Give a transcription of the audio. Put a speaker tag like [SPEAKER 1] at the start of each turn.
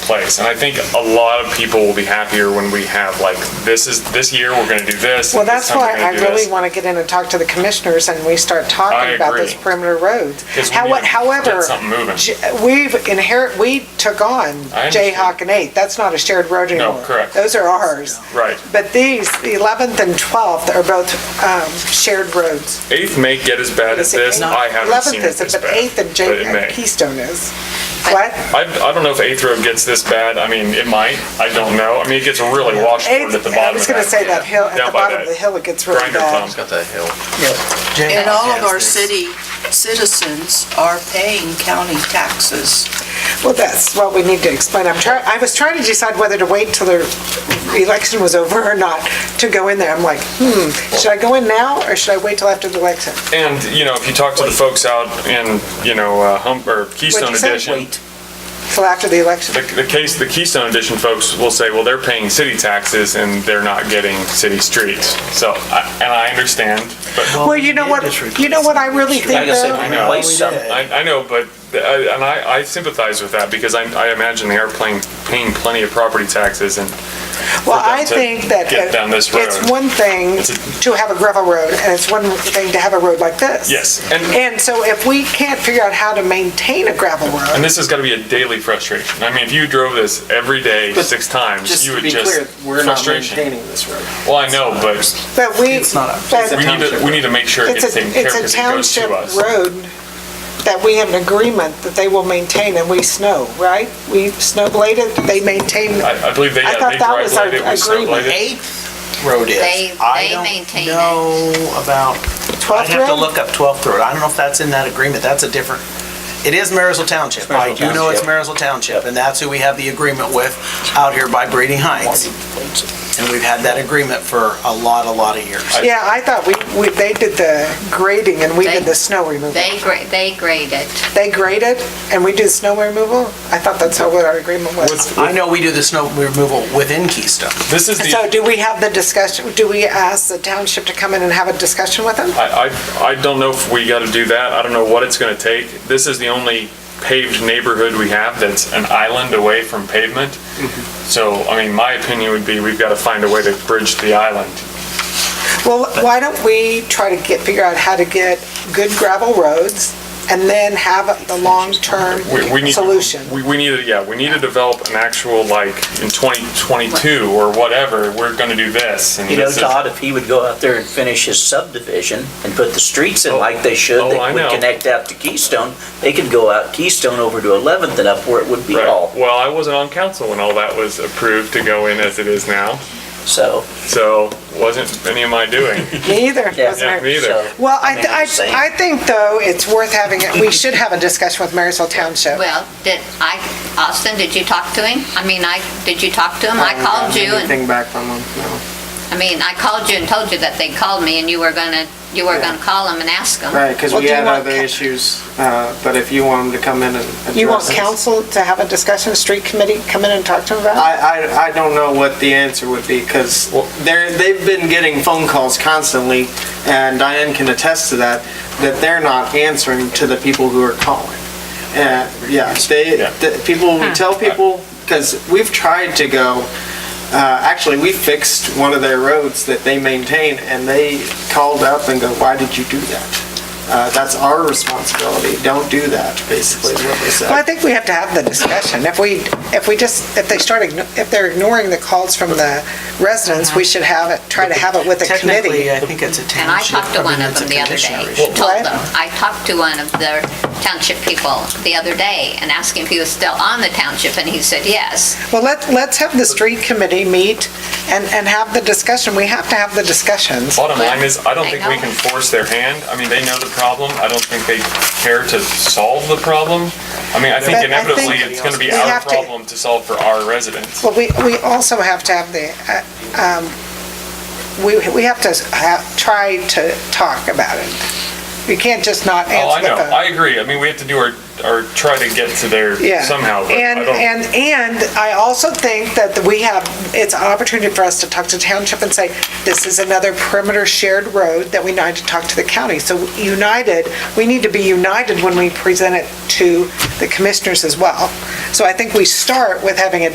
[SPEAKER 1] place. And I think a lot of people will be happier when we have like, this is, this year, we're gonna do this.
[SPEAKER 2] Well,
[SPEAKER 1] and this
[SPEAKER 2] that's
[SPEAKER 1] time we're
[SPEAKER 2] why
[SPEAKER 1] gonna
[SPEAKER 2] I
[SPEAKER 1] do this.
[SPEAKER 2] really want to get in and talk to the commissioners and we start
[SPEAKER 1] I
[SPEAKER 2] talking about
[SPEAKER 1] agree.
[SPEAKER 2] those perimeter roads.
[SPEAKER 1] 'Cause we
[SPEAKER 2] How-
[SPEAKER 1] need to get
[SPEAKER 2] However,
[SPEAKER 1] something moving.
[SPEAKER 2] J- we've inherit, we took on
[SPEAKER 1] I understand.
[SPEAKER 2] Jayhawk and 8th. That's not a shared road anymore.
[SPEAKER 1] correct.
[SPEAKER 2] Those are ours.
[SPEAKER 1] Right.
[SPEAKER 2] But these, the 11th and 12th are both um, shared roads.
[SPEAKER 1] Eighth may get as bad as this. I haven't seen
[SPEAKER 2] 11th
[SPEAKER 1] it
[SPEAKER 2] is,
[SPEAKER 1] this
[SPEAKER 2] but
[SPEAKER 1] bad.
[SPEAKER 2] 8th and
[SPEAKER 1] but it
[SPEAKER 2] Jay,
[SPEAKER 1] may.
[SPEAKER 2] Keystone is. What?
[SPEAKER 1] I, I don't know if Eighth Road gets this bad. I mean, it might. I don't know. I mean, it gets really washboard at
[SPEAKER 2] Eighth,
[SPEAKER 1] the
[SPEAKER 2] I
[SPEAKER 1] bottom.
[SPEAKER 2] was
[SPEAKER 1] of
[SPEAKER 2] going to say that hill, at
[SPEAKER 1] Down
[SPEAKER 2] the
[SPEAKER 1] by
[SPEAKER 2] bottom
[SPEAKER 1] that
[SPEAKER 2] of the hill, it gets really
[SPEAKER 1] grinder
[SPEAKER 2] bad.
[SPEAKER 1] thump.
[SPEAKER 3] It's got that hill.
[SPEAKER 4] And all of our
[SPEAKER 1] Yes.
[SPEAKER 4] city citizens are paying county taxes.
[SPEAKER 2] Well, that's what we need to explain. I'm trying, I was trying to decide whether to wait till the election was over or not to go in there. I'm like, hmm, should I go in now or should I wait till after the election?
[SPEAKER 1] And, you know, if you talk to the folks out in, you know, uh, Hump, or Keystone
[SPEAKER 2] you say?
[SPEAKER 1] Edition,
[SPEAKER 4] Wait,
[SPEAKER 2] Till after the election?
[SPEAKER 1] the, the case, the Keystone Edition folks will say, well, they're paying city taxes and they're not getting city streets. So, I- and I understand, but
[SPEAKER 2] Well, you know what, you know what I really think
[SPEAKER 3] Like I said,
[SPEAKER 2] though?
[SPEAKER 3] we replaced some.
[SPEAKER 1] I, I know, but, I- and I, I sympathize with that because I, I imagine they are paying, paying plenty of property taxes and
[SPEAKER 2] Well,
[SPEAKER 1] them
[SPEAKER 2] I
[SPEAKER 1] to
[SPEAKER 2] think that
[SPEAKER 1] get down this
[SPEAKER 2] it's
[SPEAKER 1] road.
[SPEAKER 2] one thing
[SPEAKER 1] It's a-
[SPEAKER 2] to have a gravel road and it's one thing to have a road like this.
[SPEAKER 1] Yes, and-
[SPEAKER 2] And so if we can't figure out how to maintain a gravel
[SPEAKER 1] And
[SPEAKER 2] road,
[SPEAKER 1] this has got to be a daily frustration. I mean, if you drove this every day, six times,
[SPEAKER 5] Just
[SPEAKER 1] you
[SPEAKER 5] to
[SPEAKER 1] would
[SPEAKER 5] be clear,
[SPEAKER 1] just,
[SPEAKER 5] we're not
[SPEAKER 1] frustration.
[SPEAKER 5] maintaining this road.
[SPEAKER 1] Well, I know, but
[SPEAKER 2] but we.
[SPEAKER 5] It's not a-
[SPEAKER 2] but-
[SPEAKER 5] it's a
[SPEAKER 1] we need to, we need to make sure it
[SPEAKER 2] It's
[SPEAKER 1] gets
[SPEAKER 2] a,
[SPEAKER 1] taken care of
[SPEAKER 2] it's
[SPEAKER 1] because
[SPEAKER 2] a
[SPEAKER 1] it goes
[SPEAKER 2] township
[SPEAKER 1] to us.
[SPEAKER 2] road that we have an agreement that they will maintain and we snow, right? We snow blade it, they maintain,
[SPEAKER 1] I, I believe they, Uh,
[SPEAKER 2] I
[SPEAKER 1] yeah,
[SPEAKER 2] thought
[SPEAKER 1] they
[SPEAKER 2] that
[SPEAKER 1] dry
[SPEAKER 2] was our
[SPEAKER 1] blade it, we snow blade
[SPEAKER 2] agreement. eh?
[SPEAKER 1] it.
[SPEAKER 5] Eighth road is.
[SPEAKER 6] They-
[SPEAKER 5] I
[SPEAKER 6] they
[SPEAKER 5] don't
[SPEAKER 6] maintain it.
[SPEAKER 5] Know about,
[SPEAKER 2] 12th
[SPEAKER 5] I'd have to
[SPEAKER 2] road?
[SPEAKER 5] look up 12th Road. I don't know if that's in that agreement. That's a different, it is Marisol Township. I do know it's Marisol Township, and that's who we have the agreement with out here by Breeding Heights. And we've had that agreement for a lot, a lot of years.
[SPEAKER 2] Yeah, I thought we, we, they did the grading and we did
[SPEAKER 6] They-
[SPEAKER 2] the snow removal.
[SPEAKER 6] They grade, they grade it.
[SPEAKER 2] They graded and we did snow removal? I thought that's how what our agreement was.
[SPEAKER 1] What's-
[SPEAKER 5] I know we do the snow removal within Keystone.
[SPEAKER 1] This is
[SPEAKER 2] So
[SPEAKER 1] the,
[SPEAKER 2] do we have the discussion, do we ask the township to come in and have a discussion with them?
[SPEAKER 1] I, I, I don't know if we got to do that. I don't know what it's going to take. This is the only paved neighborhood we have that's an island away from pavement.
[SPEAKER 7] Mm-hmm.
[SPEAKER 1] So, I mean, my opinion would be we've got to find a way to bridge the island.
[SPEAKER 2] Well, why don't we try to get, figure out how to get good gravel roads and then have the long-term
[SPEAKER 1] We, we need.
[SPEAKER 2] solution?
[SPEAKER 1] We, we need to, yeah, we need to develop an actual, like, in 2022 or whatever, we're gonna do this. and
[SPEAKER 7] You know,
[SPEAKER 1] this is-
[SPEAKER 7] Todd, if he would go out there and finish his subdivision and put the streets in like they
[SPEAKER 1] Oh,
[SPEAKER 7] should,
[SPEAKER 1] I
[SPEAKER 7] that would
[SPEAKER 1] know.
[SPEAKER 7] connect out to Keystone, they could go out Keystone over to 11th and up where it would be
[SPEAKER 1] Right.
[SPEAKER 7] all.
[SPEAKER 1] Well, I wasn't on council when all that was approved to go in as it is now,
[SPEAKER 7] So,
[SPEAKER 1] so wasn't any of my doing.
[SPEAKER 2] Me either.
[SPEAKER 7] Yeah.
[SPEAKER 2] wasn't
[SPEAKER 1] Yeah,
[SPEAKER 2] it?
[SPEAKER 1] me either.
[SPEAKER 7] so,
[SPEAKER 2] Well, I, th-
[SPEAKER 7] I'm saying.
[SPEAKER 2] I, I think though, it's worth having, it. we should have a discussion with Marysville Township.
[SPEAKER 6] Well, did I, Austin, did you talk to him? I mean, I, did you talk to him? I called you and,
[SPEAKER 5] Anything back from them? No.
[SPEAKER 6] I mean, I called you and told you that they called me and you were gonna, you were gonna call him and ask him.
[SPEAKER 8] Right, because
[SPEAKER 2] Well,
[SPEAKER 8] we
[SPEAKER 2] do you
[SPEAKER 8] had
[SPEAKER 2] want
[SPEAKER 8] other
[SPEAKER 2] ca-
[SPEAKER 8] issues, uh, but if you want them to come in and address
[SPEAKER 2] You want
[SPEAKER 8] us-
[SPEAKER 2] council to have a discussion, street committee come in and talk to them about it?
[SPEAKER 8] I, I, I don't know what the answer would be, because
[SPEAKER 1] Well-
[SPEAKER 8] they're, they've been getting phone calls constantly, and Diane can attest to that, that they're not answering to the people who are calling. And, yeah, they,
[SPEAKER 1] Yeah.
[SPEAKER 8] the people, we tell people, because we've tried to go, uh, actually, we fixed one of their roads that they maintain, and they called up and go, why did you do that? Uh, that's our responsibility, don't do that, basically, is what they said.
[SPEAKER 2] Well, I think we have to have the discussion. If we, if we just, if they start, igno- if they're ignoring the calls from the residents, we should have it, try to have it with a committee.
[SPEAKER 5] Technically, I think it's a
[SPEAKER 6] And I
[SPEAKER 5] township.
[SPEAKER 6] talked to
[SPEAKER 5] mean,
[SPEAKER 6] one of
[SPEAKER 5] it's a
[SPEAKER 6] them the other
[SPEAKER 5] commissioner
[SPEAKER 6] day,
[SPEAKER 5] issue.
[SPEAKER 2] What?
[SPEAKER 6] told them, I talked to one of the township people the other day and asked him if he was still on the township and he said yes.
[SPEAKER 2] Well, let, let's have the street committee meet and, and have the discussion. We have to have the discussions.
[SPEAKER 1] Bottom line is, I don't think we
[SPEAKER 6] I know.
[SPEAKER 1] can force their hand. I mean, they know the problem. I don't think they care to solve the problem. I mean, I
[SPEAKER 2] But I
[SPEAKER 1] think
[SPEAKER 2] think
[SPEAKER 1] inevitably, it's gonna be
[SPEAKER 2] we
[SPEAKER 1] our
[SPEAKER 2] have to-
[SPEAKER 1] problem to solve for our residents.
[SPEAKER 2] Well, we, we also have to have the, uh, um, we, we have to ha try to talk about it. you can't just not
[SPEAKER 1] Oh, I
[SPEAKER 2] answer
[SPEAKER 1] know,
[SPEAKER 2] the phone.
[SPEAKER 1] I agree. I mean, we have to do our, our, try to get to there
[SPEAKER 2] Yeah.
[SPEAKER 1] somehow, but I
[SPEAKER 2] And,
[SPEAKER 1] don't,
[SPEAKER 2] and, and I also think that we have, it's an opportunity for us to talk to township and say, this is another perimeter shared road that we need to talk to the county. So united, we need to be united when we present it to the commissioners as well. So I think we start with having a